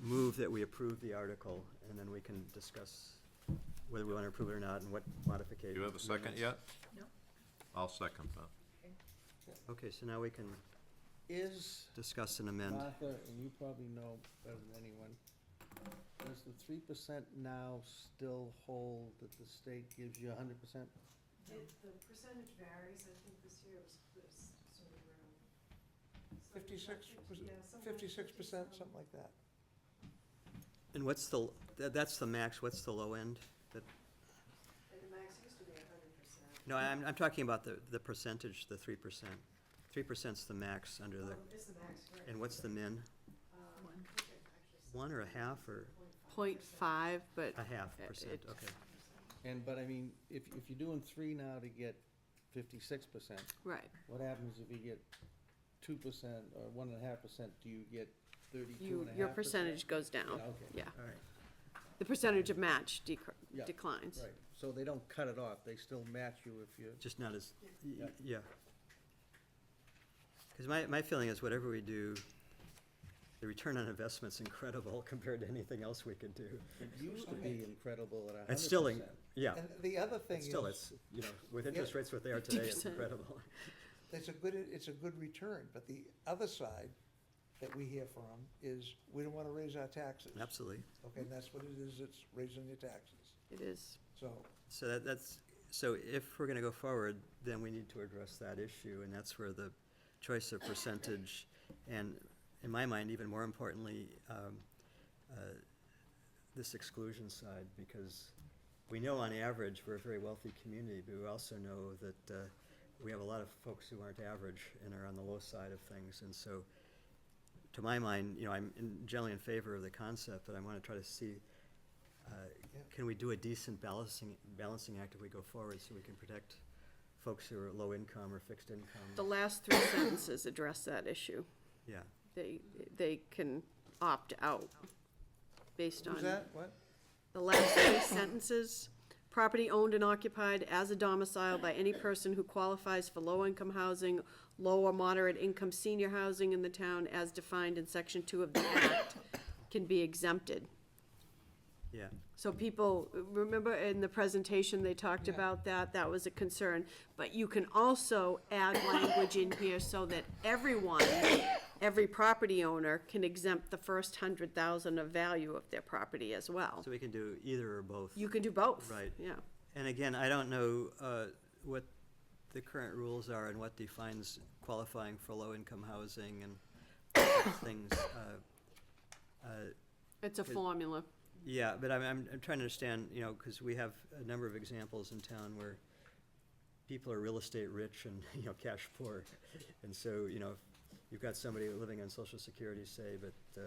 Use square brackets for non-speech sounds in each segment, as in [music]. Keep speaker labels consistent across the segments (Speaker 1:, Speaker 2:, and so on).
Speaker 1: move that we approve the article, and then we can discuss whether we want to approve it or not, and what modification.
Speaker 2: Do you have a second yet?
Speaker 3: No.
Speaker 2: I'll second that.
Speaker 1: Okay, so now we can
Speaker 4: Is,
Speaker 1: discuss and amend.
Speaker 4: Martha, and you probably know better than anyone, does the three percent now still hold that the state gives you hundred percent?
Speaker 5: It, the percentage varies, I think this year it was, was sort of around. something like
Speaker 4: 56
Speaker 5: fifty-
Speaker 4: percent-
Speaker 5: yeah, something like
Speaker 4: Fifty-six percent,
Speaker 5: 57.
Speaker 4: something like that.
Speaker 1: And what's the, tha- that's the max, what's the low end? That-
Speaker 5: And the max used to be a hundred percent.
Speaker 1: No, I'm, I'm talking about the, the percentage, the three percent. Three percent's the max under the,
Speaker 5: Um, it's the max, right.
Speaker 1: and what's the min?
Speaker 5: Um,
Speaker 3: One.
Speaker 5: I think it actually said
Speaker 1: One or a half or
Speaker 3: Point five, but
Speaker 1: a half
Speaker 3: It-
Speaker 1: percent?
Speaker 3: it-
Speaker 1: Okay.
Speaker 4: And, but I mean, if, if you're doing three now to get fifty-six percent,
Speaker 3: right,
Speaker 4: what happens if you get two percent or one and a half percent? Do you get thirty-two
Speaker 3: you
Speaker 4: and a half percent?
Speaker 3: your percentage goes down.
Speaker 4: okay.
Speaker 3: Yeah,
Speaker 1: All right.
Speaker 3: the percentage of match decr-
Speaker 4: Yeah,
Speaker 3: declines.
Speaker 4: Right, so they don't cut it off, they still match you if you,
Speaker 1: Just not as, y- y-
Speaker 4: Yeah.
Speaker 1: yeah. Because my, my feeling is whatever we do, the return on investment's incredible [laughs] compared to anything else we could do.
Speaker 4: it used to be incredible at a hundred percent.
Speaker 1: It's still, in- yeah,
Speaker 4: And the other thing
Speaker 1: it's
Speaker 4: is.
Speaker 1: still, it's, you know, with interest rates what they are today, it's
Speaker 3: 50%.
Speaker 1: incredible. [laughs]
Speaker 4: It's a good, it's a good return, but the other side that we hear from is, we don't wanna raise our taxes.
Speaker 1: Absolutely.
Speaker 4: Okay, and that's what it is, it's raising your taxes.
Speaker 3: It is,
Speaker 4: So,
Speaker 1: So that, that's, so if we're gonna go forward, then we need to address that issue, and that's where the choice of percentage, and in my mind, even more importantly, um, uh, this exclusion side, because we know on average, we're a very wealthy community, but we also know that, uh, we have a lot of folks who aren't average and are on the low side of things, and so, to my mind, you know, I'm in- generally in favor of the concept, but I wanna try to see, uh,
Speaker 4: Yeah.
Speaker 1: can we do a decent balancing, balancing act if we go forward so we can protect folks who are low income or fixed
Speaker 3: the
Speaker 1: income?
Speaker 3: last three sentences address that issue.
Speaker 1: Yeah,
Speaker 3: They, they can opt out based on.
Speaker 4: who's that, what?
Speaker 3: The last three [coughs] sentences, property owned and occupied as a domicile by any person who qualifies for low-income housing, low or moderate-income senior housing in the town as defined in section two of the act can be exempted.
Speaker 1: yeah,
Speaker 3: So people, remember in the presentation, they talked
Speaker 4: Yeah.
Speaker 3: about that, that was a concern. But you can also add language in here so that everyone, every property owner can exempt the first hundred thousand of value of their property as well.
Speaker 1: so we can do either or both.
Speaker 3: You can do both.
Speaker 1: Right.
Speaker 3: Yeah.
Speaker 1: And again, I don't know, uh, what the current rules are and what defines qualifying for low income housing and things, uh, uh,
Speaker 3: It's a
Speaker 1: It-
Speaker 3: formula.
Speaker 1: Yeah, but I'm, I'm, I'm trying to understand, you know, because we have a number of examples in town where people are real estate rich and, [laughs] you know, cash poor. And so, you know, if you've got somebody living on social security, say, but, uh,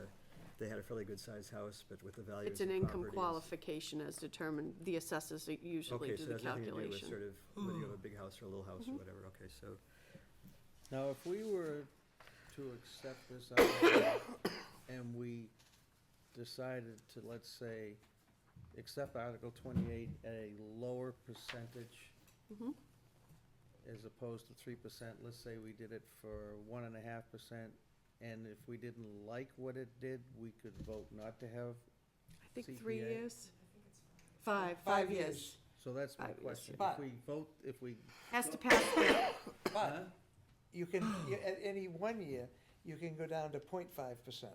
Speaker 1: they had a fairly good sized house, but with the values of
Speaker 3: It's an income
Speaker 1: properties-
Speaker 3: qualification as determined, the assessors usually
Speaker 1: Okay,
Speaker 3: do
Speaker 1: so
Speaker 3: the
Speaker 1: that's nothing to do with sort
Speaker 3: calculation. Mm-hmm.
Speaker 1: of whether you have a big house or a little house or whatever, okay, so.
Speaker 4: Now, if we were to accept this article and we decided to, let's say, accept Article twenty-eight at a lower percentage
Speaker 3: Mhm.
Speaker 4: as opposed to three percent, let's say we did it for one and a half percent, and if we didn't like what it did, we could vote not to have,
Speaker 3: I think three
Speaker 4: CPA.
Speaker 3: years? Five, five years.
Speaker 4: so that's my
Speaker 3: Five years,
Speaker 4: question.
Speaker 6: yeah.
Speaker 4: If we vote, if we,
Speaker 3: Has to pass, the-
Speaker 6: But you can,
Speaker 1: [clears throat]
Speaker 6: you- at any one year, you can go down to 0.5 percent.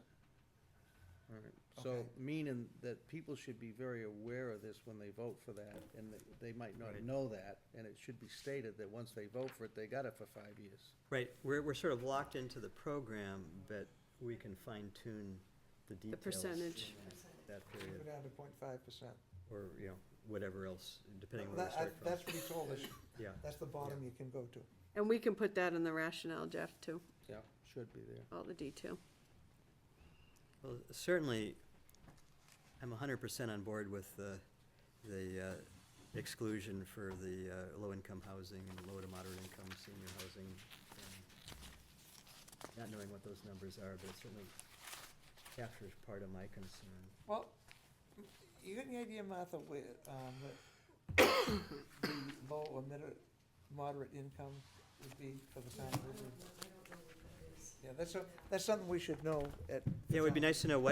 Speaker 4: all right, so
Speaker 6: Okay.
Speaker 4: meaning that people should be very aware of this when they vote for that, and that they might not
Speaker 1: Right.
Speaker 4: know that, and it should be stated that once they vote for it, they got it for five years.
Speaker 1: Right, we're, we're sort of locked into the program, but we can fine tune the details.
Speaker 3: percentage.
Speaker 1: in that- That
Speaker 6: You
Speaker 1: period,
Speaker 6: Go down to 0.5 percent.
Speaker 1: or, you know, whatever else, depending on where we start from.
Speaker 6: That's what he told us.
Speaker 1: Yeah,
Speaker 6: That's the bottom you can go to.
Speaker 3: and we can put that in the rationale, Jeff, too,
Speaker 4: Yeah, should be there.
Speaker 3: all the detail.
Speaker 1: well, certainly, I'm hundred percent on board with the, the uh, exclusion for the uh, low-income housing and low to moderate income senior housing. um, Not knowing what those numbers are, but it certainly captures part of my concern.
Speaker 6: Well, you got any idea, Martha, where, um, that [coughs] the low or middle, moderate income would be for the
Speaker 5: Yeah, I don't
Speaker 6: town? of Groveland?
Speaker 5: know, I don't know what that is.
Speaker 6: Yeah, that's, a- that's something we should know at. the
Speaker 1: Yeah, it would be
Speaker 6: time.
Speaker 1: nice to know what